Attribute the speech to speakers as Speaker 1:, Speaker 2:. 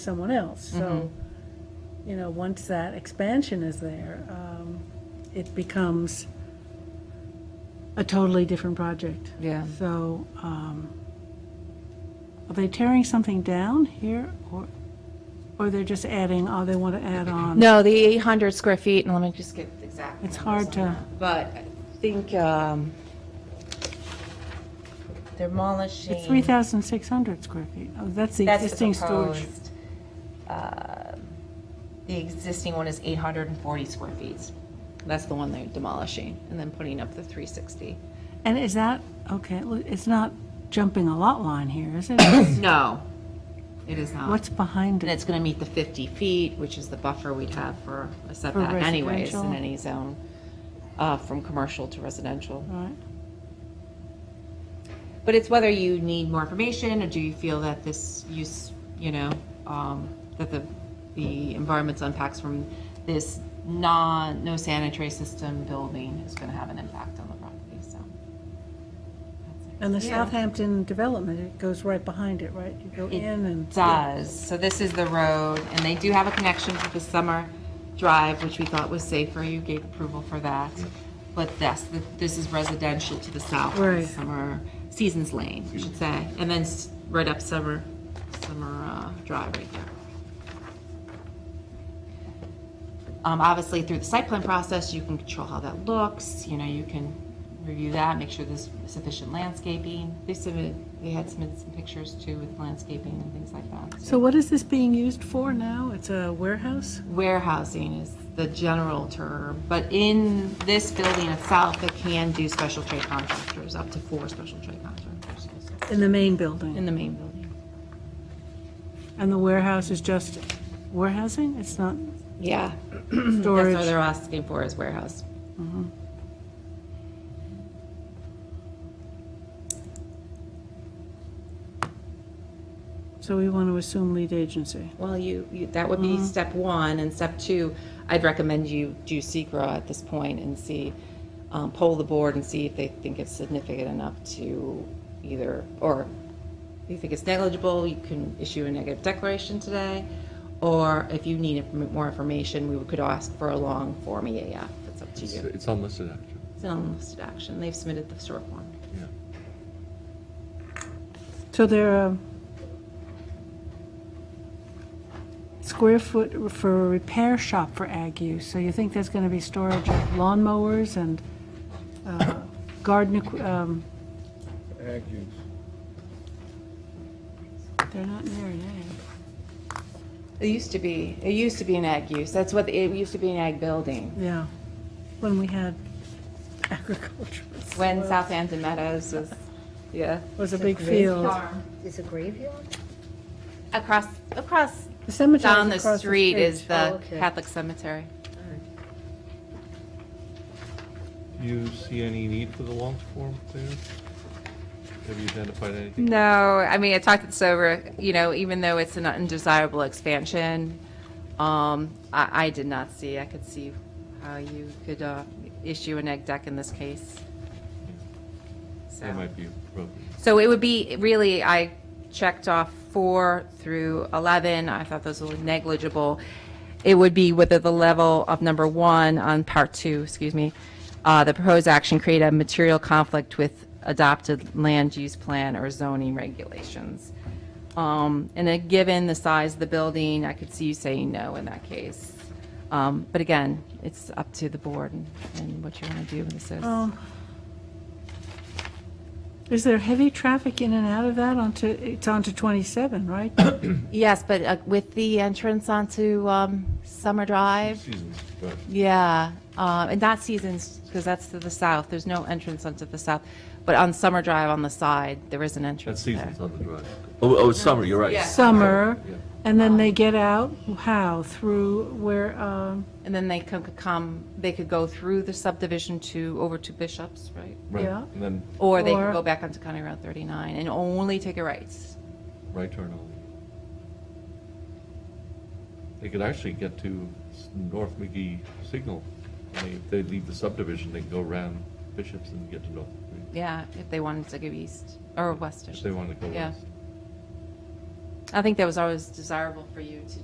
Speaker 1: someone else. So,
Speaker 2: Mm-hmm.
Speaker 1: you know, once that expansion is there, um, it becomes a totally different project.
Speaker 2: Yeah.
Speaker 1: So, um, are they tearing something down here or, or they're just adding, oh, they want to add on?
Speaker 2: No, the 800 square feet, and let me just get the exact.
Speaker 1: It's
Speaker 2: numbers
Speaker 1: hard
Speaker 2: on
Speaker 1: to-
Speaker 2: that. But I think um, they're demolishing.
Speaker 1: It's 3,600 square feet. Oh, that's the
Speaker 2: That's the
Speaker 1: existing storage.
Speaker 2: proposed, um, The existing one is 840 square feet. That's the one they're demolishing and then putting up the 360.
Speaker 1: And is that, okay, look, it's not jumping a lot line here, is it?
Speaker 2: No, it is not.
Speaker 1: What's behind it?
Speaker 2: And it's going to meet the 50 feet, which is the buffer we'd have for a setback anyways in
Speaker 1: residential.
Speaker 2: any zone, uh, from commercial to residential.
Speaker 1: Right.
Speaker 2: But it's whether you need more information, or do you feel that this use, you know, um, that the, the environment's unpacks from this non, no sanitary system building is gonna have an impact on the property, so.
Speaker 1: And the Southampton development, it goes right behind it, right? You go
Speaker 2: It
Speaker 1: in and,
Speaker 2: Does, so this is the road, and they do have a connection to the summer drive, which we thought was safer, you gave approval for that. But this, this is residential to the south,
Speaker 1: Right.
Speaker 2: summer, Seasons Lane, I should say, and then s- right up Summer, Summer uh, Drive right there. Um, Obviously, through the site plan process, you can control how that looks, you know, you can review that, make sure there's sufficient landscaping. They submitted, they had submitted some pictures too with landscaping and things like that.
Speaker 1: so what is this being used for now? It's a warehouse?
Speaker 2: Warehousing is the general term, but in this building itself, it can do special trade contractors, up to four special trade contractors
Speaker 1: In the main building?
Speaker 2: in the main building.
Speaker 1: And the warehouse is just warehousing? It's not
Speaker 2: Yeah. That's what
Speaker 1: storage?
Speaker 2: they're asking for is warehouse.
Speaker 1: So we want to assume lead agency.
Speaker 2: Well, you, you, that would be step one, and step two, I'd recommend you do SECR at this point and see, um, poll the board and see if they think it's significant enough to either, or if you think it's negligible, you can issue a negative declaration today, or if you need inf- more information, we could ask for a long form EAF, it's up to
Speaker 3: It's,
Speaker 2: you.
Speaker 3: it's unlisted action.
Speaker 2: It's an unlisted action, they've submitted the short form.
Speaker 3: Yeah.
Speaker 1: So they're um, square foot for a repair shop for ag use. So you think there's going to be storage of lawnmowers and uh, garden, equi- um,
Speaker 4: Ag use.
Speaker 1: they're not near an ag.
Speaker 2: It used to be, it used to be an ag use, that's what, it used to be an ag building,
Speaker 1: Yeah, when we had agriculture.
Speaker 2: when Southampton Meadows was, yeah.
Speaker 1: Was a big field.
Speaker 5: It's a graveyard?
Speaker 2: Across, across,
Speaker 1: The cemetery
Speaker 2: down the street is
Speaker 5: Oh,
Speaker 2: the
Speaker 5: okay.
Speaker 2: Catholic cemetery.
Speaker 3: Do you see any need for the long form there? Have you identified anything?
Speaker 2: No, I mean, I talked this over, you know, even though it's an undesirable expansion, um, I, I did not see, I could see how you could, uh, issue an egg deck in this case.
Speaker 3: That
Speaker 2: So,
Speaker 3: might be appropriate.
Speaker 2: so it would be, really, I checked off four through 11, I thought those were negligible. It would be whether the level of number one on part two, excuse me, uh, the proposed action create a material conflict with adopted land use plan or zoning regulations. Um, and then given the size of the building, I could see you saying no in that case. Um, but again, it's up to the board and, and what you want to do with this. is.
Speaker 1: Um, Is there heavy traffic in and out of that onto, it's onto 27, right?
Speaker 2: Yes, but uh, with the entrance onto um, Summer Drive,
Speaker 3: Seasons, but
Speaker 2: yeah, uh, and not Seasons, because that's to the south. There's no entrance onto the south, but on Summer Drive on the side, there is an
Speaker 3: that's
Speaker 2: entrance there.
Speaker 3: seasons on the drive. Oh, oh, it's summer, you're right.
Speaker 2: Yeah.
Speaker 1: Summer,
Speaker 3: Yeah.
Speaker 1: and then they get out, how, through where, um,
Speaker 2: And then they could could come, they could go through the subdivision to, over to Bishops, right?
Speaker 3: Right,
Speaker 1: Yeah.
Speaker 3: and then
Speaker 2: Or they
Speaker 1: Or-
Speaker 2: could go back onto County Route 39 and only take a right.
Speaker 3: right turn only. They could actually get to s- North McGee Signal. I mean, If they leave the subdivision, they can go around Bishops and get to North McGee,
Speaker 2: Yeah, if they wanted to go east or west. I
Speaker 3: if
Speaker 2: should
Speaker 3: they
Speaker 2: say.
Speaker 3: want to go
Speaker 2: Yeah.
Speaker 3: west.
Speaker 2: I think that was always desirable for you to